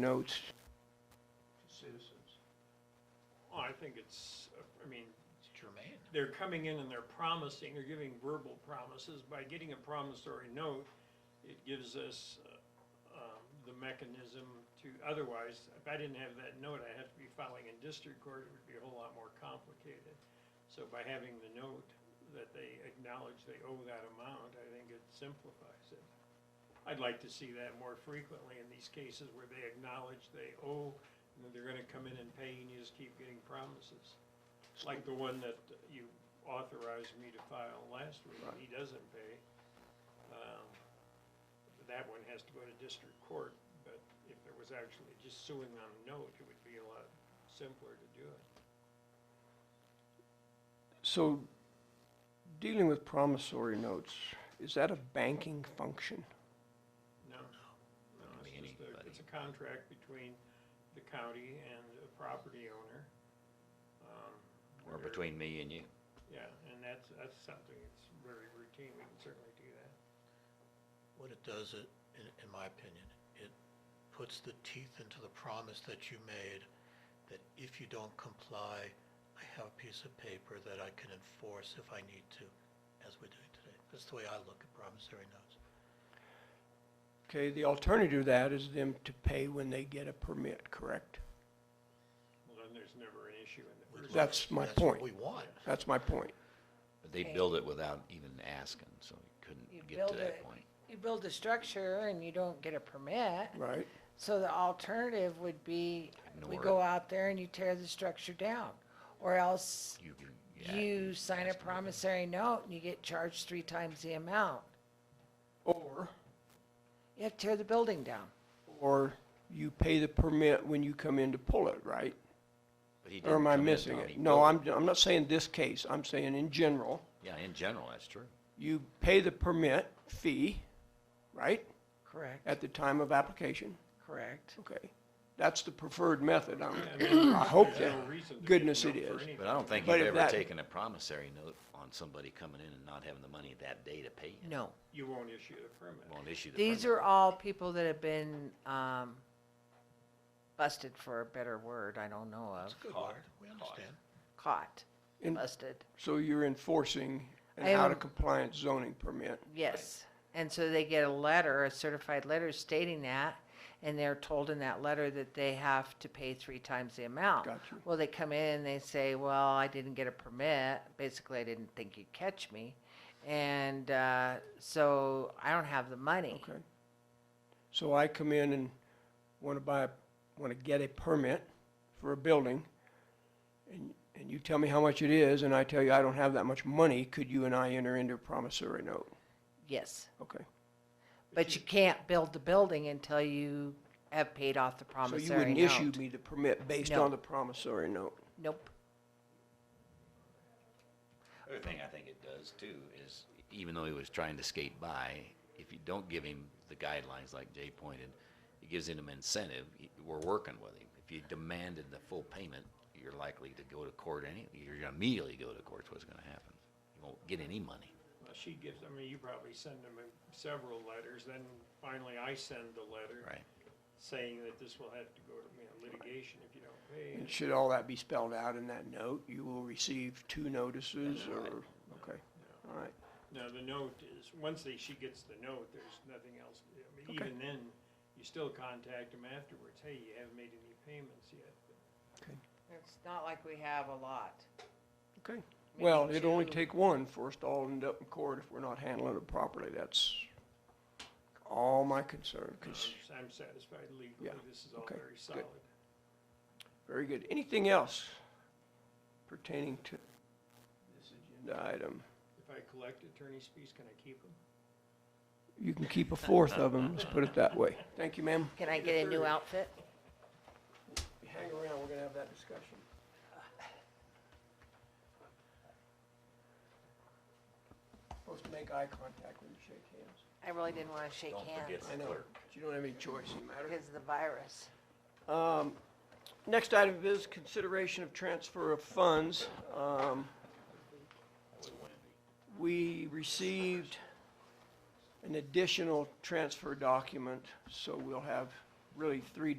notes to citizens. Well, I think it's, I mean, Germaine. they're coming in and they're promising, they're giving verbal promises. By getting a promissory note, it gives us uh, um, the mechanism to, otherwise, if I didn't have that note, I'd have to be filing in district court, it would be a whole lot more complicated. So by having the note that they acknowledge they owe that amount, I think it simplifies it. I'd like to see that more frequently in these cases where they acknowledge they owe, and that they're gonna come in and pay, and you just keep getting promises. Like the one that you authorized me to file last week, he doesn't pay. Um, That one has to go to district court, but if it was actually just suing on a note, it would be a lot simpler to do it. So, dealing with promissory notes, is that a banking function? No, no, it's Could be just a, it's anybody. a contract between the county and a property owner. um, Or where- between me and you. Yeah, and that's, that's something that's very routine, we can certainly do that. What it does, it, in, in my opinion, it puts the teeth into the promise that you made, that if you don't comply, I have a piece of paper that I can enforce if I need to, as we're doing today. That's the way I look at promissory notes. Okay, the alternative to that is them to pay when they get a permit, correct? Well, then there's never an issue in the We'd first. love- That's my That's point. what we want. That's my point. But they Okay. build it without even asking, so you You couldn't get build to that it. point. You build a structure and you don't get a permit, Right. so the alternative would be, we Ignore go it. out there and you tear the structure down. Or else You, you- yeah, you sign ask a them to do it. promissory note and you get charged three times the amount. Or, You have to tear the building down. or you pay the permit when you come in to pull it, right? But he Or didn't am I come in, missing Tom, it? he No, built I'm, I'm not saying this case, I'm saying in general, Yeah, in general, that's true. you pay the permit fee, right, Correct, at the time of application. correct. Okay, that's the preferred method, I'm, Yeah, mean, I hope there's that, no reason to give goodness no it for is. anything. But I don't think But if you've ever that- taken a promissory note on somebody coming in and not having the money that day to pay it. No. You won't issue the permit. Won't issue the These permit. are all people that have been, um, busted for a better word, I don't know of. It's a good Caught. word, we Caught. understand. Caught, and busted. so you're enforcing an I am- out of compliance zoning permit. Yes. And so they get a letter, a certified letter stating that, and they're told in that letter that they have to pay three times the amount. Gotcha. Well, they come in and they say, well, I didn't get a permit. Basically, I didn't think you'd catch me. And, uh, so I don't have the money. Okay. So I come in and want to buy, want to get a permit for a building, and, and you tell me how much it is, and I tell you I don't have that much money, could you and I enter into a promissory note? Yes. Okay. But you can't build the building until you have paid off the So you promissory wouldn't issue note. me the permit based No. on the promissory note? Nope. Other thing I think it does too is, even though he was trying to skate by, if you don't give him the guidelines like Jay pointed, it gives him an incentive. Y- We're working with him. If you demanded the full payment, you're likely to go to court any, you're gonna immediately go to court, is what's gonna happen. You won't get any money. Well, she gives, I mean, you probably send them several letters, then finally I send the letter. Right. Saying that this will have to go to, you know, litigation if you don't pay. And should all that be spelled out in that note? You will receive two notices or, okay, all right. Now, the note is, once they, she gets the note, there's nothing else. I mean, Okay. even then, you still contact them afterwards, hey, you haven't made any payments yet. It's not like we have a lot. Okay. Well, Maybe it'd only two. take one for us to all end up in court if we're not handling it properly. That's all my concern, I'm 'cause- um, I'm satisfied legally, Yeah, this is all okay, very good. solid. very good. Anything else pertaining to this agenda item? If I collect attorney's fees, can I keep them? You can keep a fourth of them, let's put it that way. Thank you, ma'am. Can I get a new outfit? Hang around, we're gonna have that discussion. Supposed to make eye contact when you shake hands. I really didn't wanna shake Don't forget hands I know, but you don't have any choice, you matter. because of the virus. Um, Next item is consideration of transfer of funds. Um, We received an additional transfer document, so we'll have really three